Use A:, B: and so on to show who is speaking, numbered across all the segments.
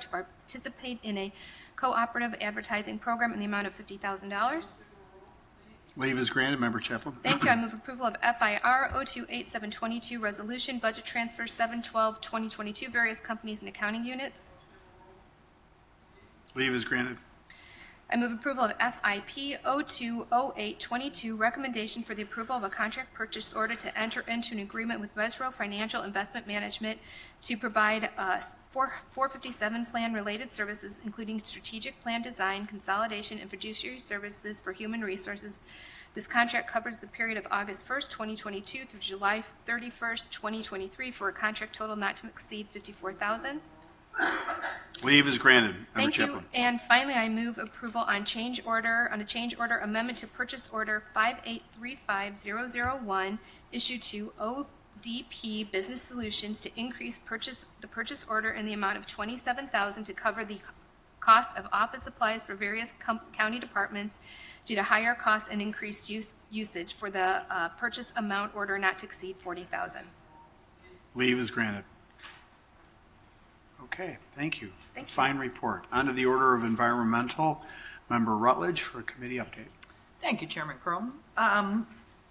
A: to participate in a cooperative advertising program in the amount of $50,000.
B: Leave is granted. Member Chaplin.
A: Thank you. I oh move approval of FIR 028722, Resolution Budget Transfer 712-2022, Various Companies and Accounting Units.
B: Leave is granted.
A: I move approval of FIP 020822, Recommendation for the Approval of a Contract Purchase Order to Enter into an Agreement with Resro Financial Investment Management to provide uh, 4 457 plan-related services, including strategic plan design, consolidation, and fiduciary services for human resources. This contract covers the period of August 1st, 2022 through July 31st, 2023, for a contract total not to exceed 54000
B: Leave is granted. Member
A: Thank you.
B: Chaplin.
A: And finally, I move approval on change order, on a change order amendment to purchase order 5835001, issue to ODP Business Solutions to increase purchase, the purchase order in the amount of 27000 to cover the cost of office supplies for various com- county departments due to higher costs and increased use, usage for the uh, purchase amount order not to exceed 40000
B: Leave is granted. Okay, thank you.
A: Thank you.
B: Fine report. On to the Order of Environmental, Member Rutledge for a committee update.
C: Thank you, Chairman Crum. Um,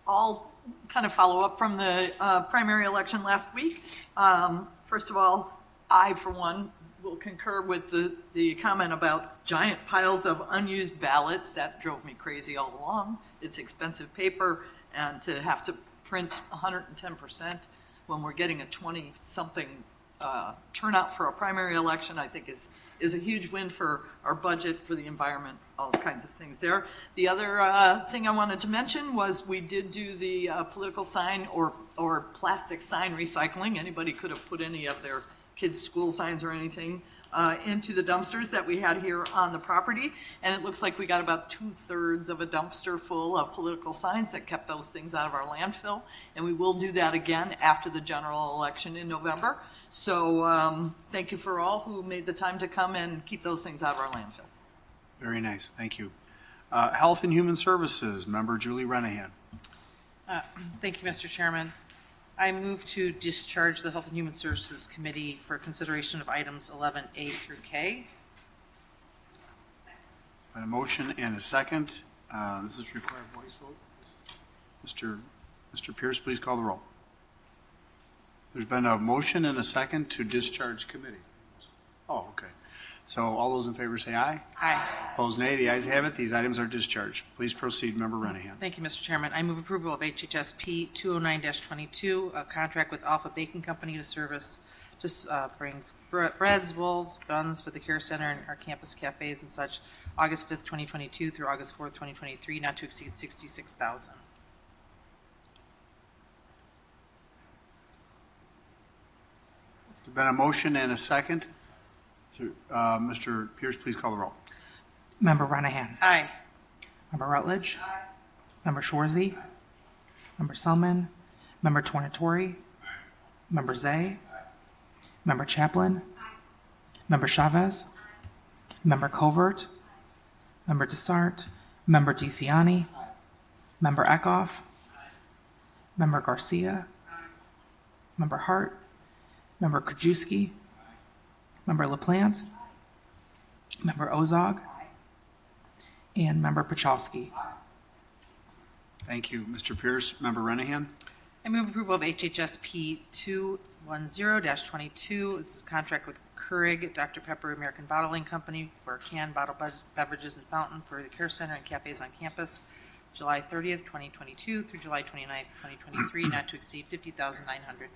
C: I'll kind of follow up from the uh, primary election last week. Um, First of all, I, for one, will concur with the, the comment about giant piles of unused ballots. That drove me crazy all along. It's expensive paper, and to have to print 110% when we're getting a 20-something uh, turnout for a primary election, I think is, is a huge win for our budget, for the environment, all kinds of things there. The other uh, thing I wanted to mention was we did do the uh, political sign or, or plastic sign recycling. Anybody could have put any of their kids' school signs or anything uh, into the dumpsters that we had here on the property. And it looks like we got about two-thirds of a dumpster full of political signs that kept those things out of our landfill. And we will do that again after the general election in November. So um, thank you for all who made the time to come and keep those things out of our landfill.
B: Very nice, thank you. Uh, Health and Human Services, Member Julie Renahan.
D: Thank you, Mr. Chairman. I move to discharge the Health and Human Services Committee for consideration of items 11A through K.
B: A motion and a second. Uh, This is required voice vote. Mr. Mr. Pierce, please call the roll. There's been a motion and a second to discharge committee. Oh, okay. So all those in favor say aye.
D: Aye.
B: Opposed, nay. The ayes have it. These items are discharged. Please proceed, Member Renahan.
D: Thank you, Mr. Chairman. I move approval of HHSP 209-22, a contract with Alpha Baking Company to service, to uh, bring bre- breads, rolls, buns for the Care Center and our campus cafes and such, August 5th, 2022 through August 4th, 2023, not to exceed 66,000.
B: There's been a motion and a second. So, uh, Mr. Pierce, please call the roll.
E: Member Renahan.
D: Aye.
E: Member Rutledge. Member Shorzy. Member Selman. Member Tornatori. Member Zay. Member Chaplin. Member Chavez. Member Covert. Member Desart. Member DeCiani. Member Eckhoff. Member Garcia. Member Hart. Member Krajewski. Member LaPlante. Member Ozog. And Member Pachalski.
B: Thank you, Mr. Pierce. Member Renahan?
D: I move approval of HHSP 210-22. This is contract with Keurig Dr. Pepper American Bottling Company for canned bottled bev- beverages and fountain for the care center and cafes on campus, July 30th, 2022 through July 29th, 2023, not to exceed 50900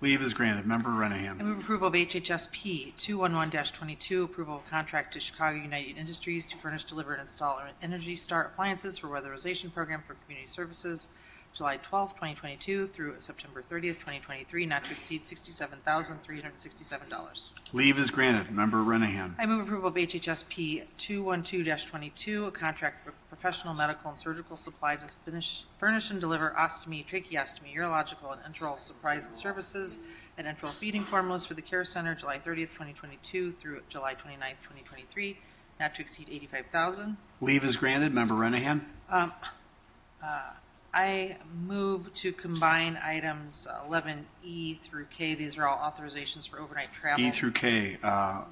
B: Leave is granted. Member
D: I
B: Renahan?
D: move approval of HHSP 211-22, approval of contract to Chicago United Industries to furnish, deliver, and install Energy Star appliances for weatherization program for community services, July 12th, 2022 through September 30th, 2023, not to exceed $67,367.
B: Leave is granted. Member Renahan?
D: I move approval of HHSP 212-22, a contract for professional medical and surgical supply to finish, furnish and deliver ostomy, tracheostomy, urological, and enteral supplies and services, and enteral feeding formulas for the care center, July 30th, 2022 through July 29th, 2023, not to exceed 85000
B: Leave is granted. Member Renahan?
D: I move to combine E items 11E through K. These are all authorizations for overnight travel.
B: E through K, uh,